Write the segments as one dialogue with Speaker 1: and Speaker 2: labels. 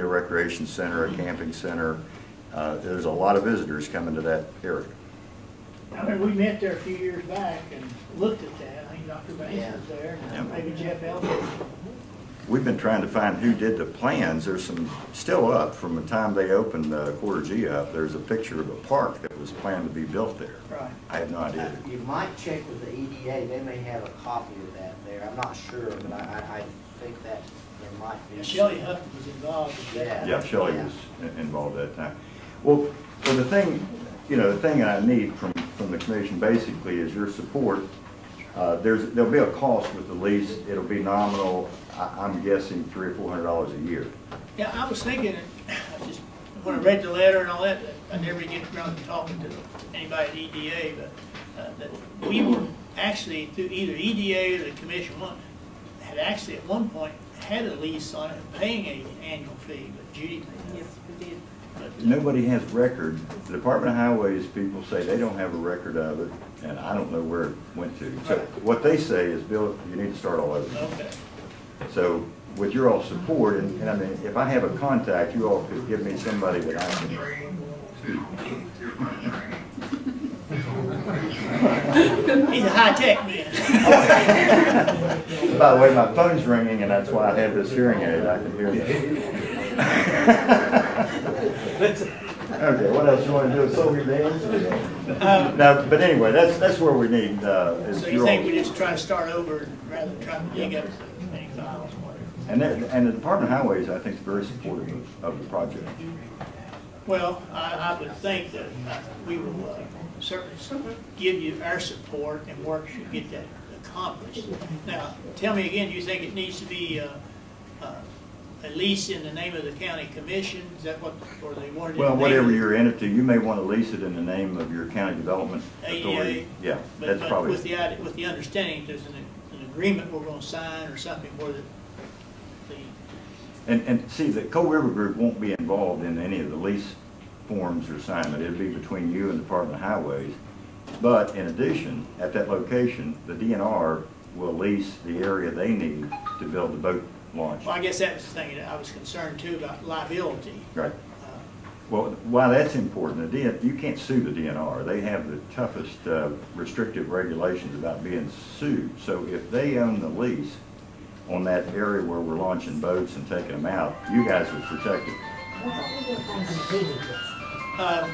Speaker 1: a recreation center, a camping center. Uh, There's a lot of visitors coming to that area.
Speaker 2: I remember we met there a few years back and looked at that, I think Dr.
Speaker 3: Yeah.
Speaker 2: Banks was there,
Speaker 1: Yeah.
Speaker 2: and maybe Jeff Elder.
Speaker 1: We've been trying to find who did the plans. There's some still up from the time they opened uh, Quarter G up. There's a picture of a park that was planned to be built there.
Speaker 2: Right.
Speaker 1: I have no idea.
Speaker 3: Uh, You might check with the EDA, they may have a copy of that there, I'm not sure, but I, I, I think that there might be.
Speaker 2: Shelley Huff was involved with that.
Speaker 1: Yeah, Shelley was in- involved at that time. Well, well, the thing, you know, the thing I need from, from the commission basically is your support. Uh, There's, there'll be a cost with the lease. It'll be nominal, I- I'm guessing, three or four hundred dollars a year.
Speaker 2: Yeah, I was thinking, I just, when I read the letter and all that, I never get around to talking to anybody at EDA, but, uh, that we were actually through either EDA or the commission, one, had actually at one point had a lease on it, paying a annual fee, but Judy paid
Speaker 4: Yes, we did.
Speaker 2: that. But, uh,
Speaker 1: Nobody has record. The Department of Highways people say they don't have a record of it, and I don't know where it went to. So
Speaker 2: Right.
Speaker 1: what they say is, Bill, you need to start all over.
Speaker 2: Okay,
Speaker 1: So with your all support, and, and I mean, if I have a contact, you all could give me somebody that I can.
Speaker 2: he's a high-tech man.
Speaker 1: By the way, my phone's ringing, and that's why I have this hearing aid. I can hear that. Okay, what else you want to do? So we dance? No, but anyway, that's, that's where we need, uh, is
Speaker 2: Um, So
Speaker 1: your
Speaker 2: you
Speaker 1: all
Speaker 2: think we just try to start over rather than trying to dig up any files?
Speaker 1: And that, and the Department of Highways, I think, is very supportive of, of the project.
Speaker 2: Well, I, I would think that uh, we will uh, certainly give you our support and work to get that accomplished. Now, tell me again, you think it needs to be uh, uh, a lease in the name of the county commission? Is that what, or they wanted? it
Speaker 1: Well,
Speaker 2: named?
Speaker 1: whatever your entity, you may want to lease it in the name of your county development
Speaker 2: ADA.
Speaker 1: authority. Yeah,
Speaker 2: E But-
Speaker 1: that's
Speaker 2: but
Speaker 1: probably,
Speaker 2: With the, idea- with the understanding there's an, an agreement we're gonna sign or something where the, the,
Speaker 1: and, and see, the Coal River Group won't be involved in any of the lease forms or assignment. It'll be between you and the Department of Highways. But in addition, at that location, the DNR will lease the area they need to build the boat launch.
Speaker 2: well, I guess that was the thing that I was concerned too about liability.
Speaker 1: Right.
Speaker 2: Uh,
Speaker 1: Well, why that's important, the DN, you can't sue the DNR. They have the toughest uh, restrictive regulations about being sued. So if they own the lease on that area where we're launching boats and taking them out, you guys are protected.
Speaker 2: Um,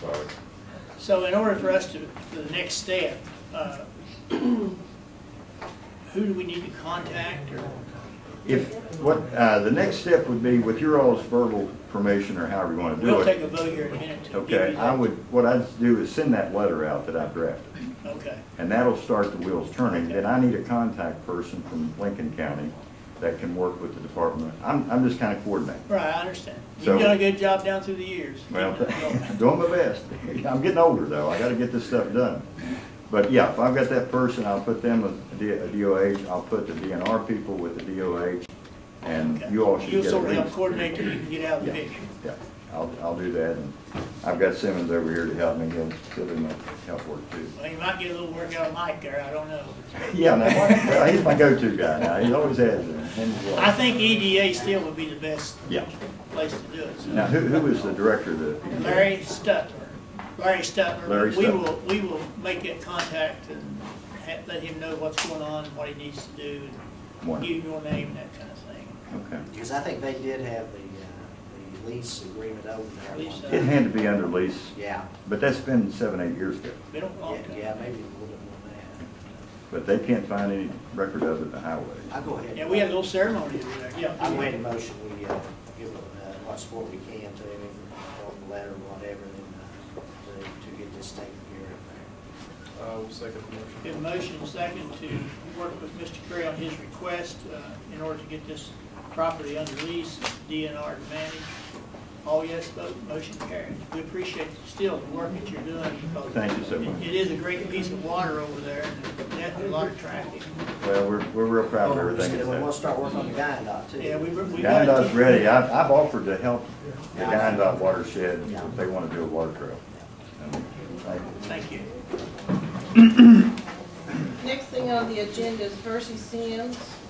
Speaker 1: Sorry.
Speaker 2: So in order for us to, for the next step, uh, who do we need to contact or?
Speaker 1: If, what, uh, the next step would be with your all's verbal permission or however you want to do it.
Speaker 2: We'll take a vote here in a minute to give you
Speaker 1: Okay, I
Speaker 2: that.
Speaker 1: would, what I'd do is send that letter out that I drafted.
Speaker 2: Okay,
Speaker 1: And that'll start the wheels turning. Then I need a contact person from Lincoln County that can work with the department. I'm, I'm just kind of coordinating.
Speaker 2: right, I understand.
Speaker 1: So-
Speaker 2: You've done a good job down through the years.
Speaker 1: Well, doing my best. I'm getting older though. I gotta get this stuff done. But yeah, if I've got that person, I'll put them with the uh, DOH, I'll put the DNR people with the DOH, and you all should
Speaker 2: You'll
Speaker 1: get a
Speaker 2: sort of
Speaker 1: link.
Speaker 2: help coordinate till you can get out of the
Speaker 1: Yeah.
Speaker 2: picture.
Speaker 1: Yeah, I'll, I'll do that. And I've got Simmons over here to help me. He'll, he'll do my help work too.
Speaker 2: Well, you might get a little work out of Mike there, I don't know.
Speaker 1: Yeah, now, well, he's my go-to guy now. He always has been. And he will.
Speaker 2: I think EDA still would be the best
Speaker 1: Yeah.
Speaker 2: place to do it, so.
Speaker 1: Now, who, who is the director of the?
Speaker 2: Larry Stutler. Larry Stutler.
Speaker 1: Larry
Speaker 2: We
Speaker 1: Stutler.
Speaker 2: will, we will make that contact and ha- let him know what's going on, what he needs to do, and
Speaker 1: Wonderful.
Speaker 2: give him your name and that kind of thing.
Speaker 1: Okay.
Speaker 3: Because I think they did have the, uh, the lease agreement over there. at one
Speaker 2: Lease, uh,
Speaker 3: time.
Speaker 1: It had to be under lease,
Speaker 3: Yeah,
Speaker 1: but that's been seven, eight years ago.
Speaker 2: Been a long
Speaker 3: yeah,
Speaker 2: time.
Speaker 3: yeah, maybe a little bit more than
Speaker 1: But they can't find any record of it in the highway.
Speaker 3: that. I'll go ahead.
Speaker 2: Yeah, we had a little ceremony over there, yeah.
Speaker 3: I made a motion, we, uh, give, uh, what support we can to him, or the letter, whatever, then, uh, to, to get this taken care of
Speaker 5: I will second the
Speaker 2: We
Speaker 5: motion.
Speaker 2: have a motion and second to work with Mr. Curry on his request uh, in order to get this property under lease, DNR to manage. All yes vote, motion carries. We appreciate still the work that you're doing. because
Speaker 1: Thank you so
Speaker 2: it-
Speaker 1: much.
Speaker 2: It is a great piece of water over there, and definitely a lot of traffic.
Speaker 1: Well, we're, we're real proud of
Speaker 3: there.
Speaker 1: everything
Speaker 3: And then we'll
Speaker 1: that's
Speaker 3: start working on the guy dot too.
Speaker 2: Yeah, we, we
Speaker 1: happened.
Speaker 2: got
Speaker 1: Guyandot's
Speaker 2: it.
Speaker 1: ready. I've, I've offered to help the Guyandot watershed if they want to do a water trail. And thank you.
Speaker 2: Thank you.
Speaker 4: Next thing on the agenda is Percy Sims.